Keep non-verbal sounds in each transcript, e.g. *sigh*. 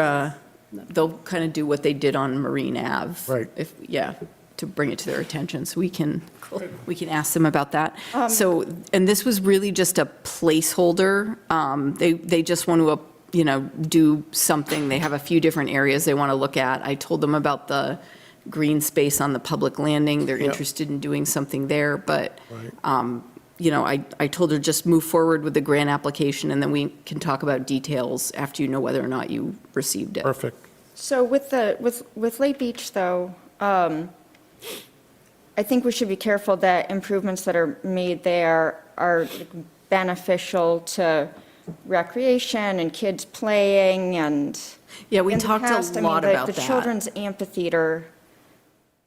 uh, they'll kind of do what they did on Marine Ave. Right. If, yeah, to bring it to their attention, so we can, we can ask them about that. So, and this was really just a placeholder. Um, They, they just want to, uh, you know, do something. They have a few different areas they want to look at. I told them about the green space on the public landing. They're Yeah. interested in doing something there, but Right. um, you know, I, I told her just move forward with the grant application, and then we can talk about details after you know whether or not you received it. Perfect. So with the, with, with Lake Beach, though, um, I think we should be careful that improvements that are made there are beneficial to recreation and kids playing and. Yeah, we In the talked past, I a mean, lot the- about The that. children's amphitheater,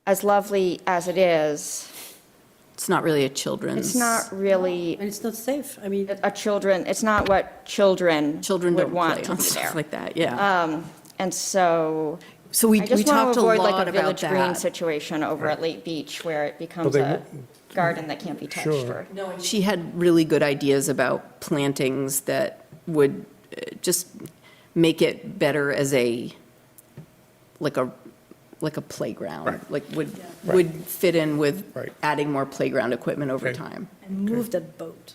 as lovely as it is, It's not really a children's. it's not really And it's not safe. I mean, a children, it's not what children Children would don't play want to on be *laughs* stuff there. like that, yeah. And so. So we, I we just want talked to a avoid lot like a about Village Green that. situation over at Lake Beach where it becomes they a won't- garden that can't be touched. Sure. or- No, and She had really good ideas about plantings that would uh, just make it better as a, like a, like a playground. Right. Like would, would fit in with Right. adding more playground equipment over Okay. time. and move that boat.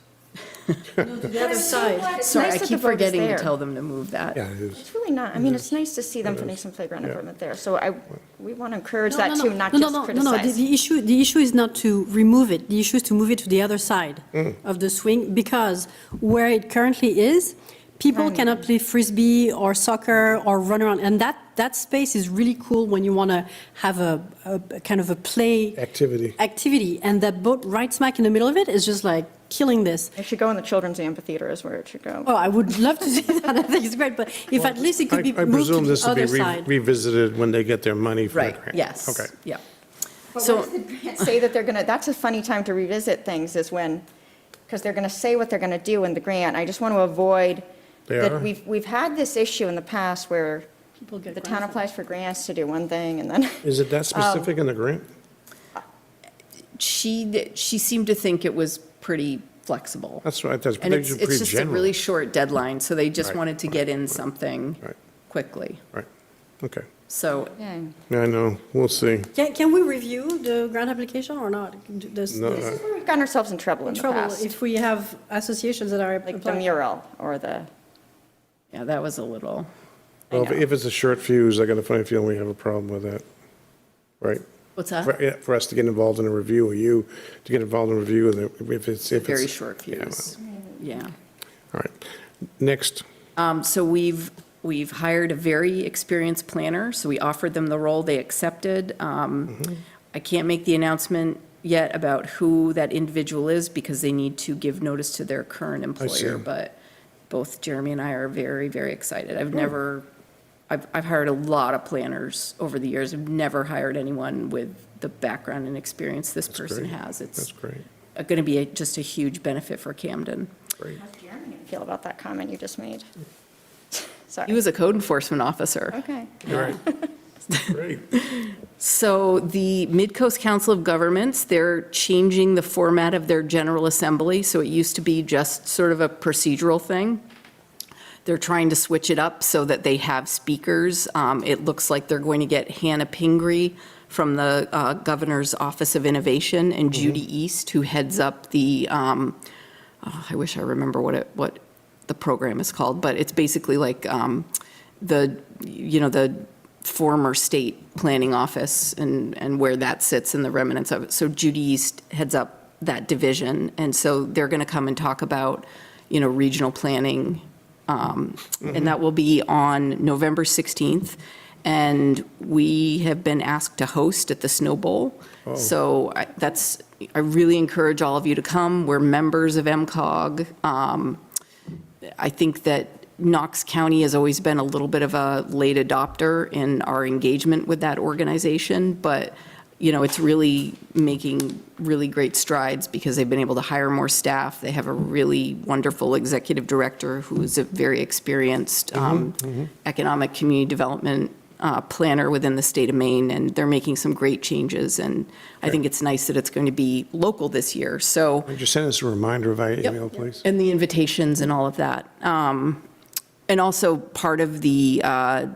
You know, to the other side. It's Sorry, nice I that the keep boat is forgetting to there. tell them to move that. Yeah, it is. It's really not, I mean, it's nice to see them putting some playground Yeah. equipment there. So I, we want to encourage No, that no, no. too, not No, no, just no, criticize. No, no, the- the issue, the issue is not to remove it. The issue is to move it to the other side of the swing because where it currently is, people cannot play frisbee or soccer or run around. And that, that space is really cool when you want to have a, a a kind of a play. Activity. Activity. And that boat right smack in the middle of it is just like killing this. It should go in the children's amphitheater is where it should go. Oh, I would love to *laughs* see that. I think it's great, but if at least it I could be I moved to presume this the will be other re- side. revisited when they get their money for the Right, grant. yes. Okay. Yeah. But So- once the grants *laughs* Say that they're going to, that's a funny time to revisit things is when, because they're going to say what they're going to do in the grant. I just want to avoid They are. that we've, we've had this issue in the past where People get the town grandfathered. applies for grants to do one thing and then. *laughs* Is Um, it that specific in the grant? She, she seemed to think it was pretty flexible. That's right, that's And it's, pretty it's pretty just a general. really short deadline, so they just Right, wanted to get in something Right. quickly. Right, okay. So Yeah, I know, we'll see. Can, can we review the grant application or not? D- Does, No, uh, does- I- This is where We've gotten ourselves in trouble in the trouble past, if we have associations that are like the applying? mural or the, Yeah, that was a little, Well, if- if it's a short fuse, I got a funny feeling we have a problem with that, right? what's that? For- yeah, For us to get involved in a review, or you to get involved in a review, and if it's, if it's. Very short Yeah, fuse. Yeah. All right, next, Um, So we've, we've hired a very experienced planner, so we offered them the role, they accepted. Um, Mm-hmm. I can't make the announcement yet about who that individual is because they need to give notice to their current employer. see. But both Jeremy and I are very, very excited. Hmm. I've never, I've, I've hired a lot of planners over the years. I've never hired anyone with the background and experience this person great. has. that's It's great, going to be a- just a huge benefit for Camden. great. feel about that comment you just made. *laughs* He Sorry. was a code enforcement officer. Okay. *laughs* Great. So the Midcoast Council of Governments, they're changing the format of their General Assembly, so it used to be just sort of a procedural thing. They're trying to switch it up so that they have speakers. Um, It looks like they're going to get Hannah Pingree from the uh, Governor's Office of Innovation and Judy East, who heads up the, um, oh, I wish I remember what it, what the program is called, but it's basically like um, the, you know, the former state planning office and, and where that sits and the remnants of it. So Judy East heads up that division, and so they're going to come and talk about, you know, regional planning um, And that will be on November 16th. And we have been asked to host at the Snow Bowl. So I- that's, I really encourage all of you to come. We're members of MCOG. Um, I think that Knox County has always been a little bit of a late adopter in our engagement with that organization, but, you know, it's really making really great strides because they've been able to hire more staff. They have a really wonderful executive director who is a very experienced um, economic community development uh, planner within the state of Maine, and they're making some great changes. And I think it's nice that it's going to be local this year. So Would you send us a reminder via email, please? and the invitations and all of that. Um, And also, part of the uh,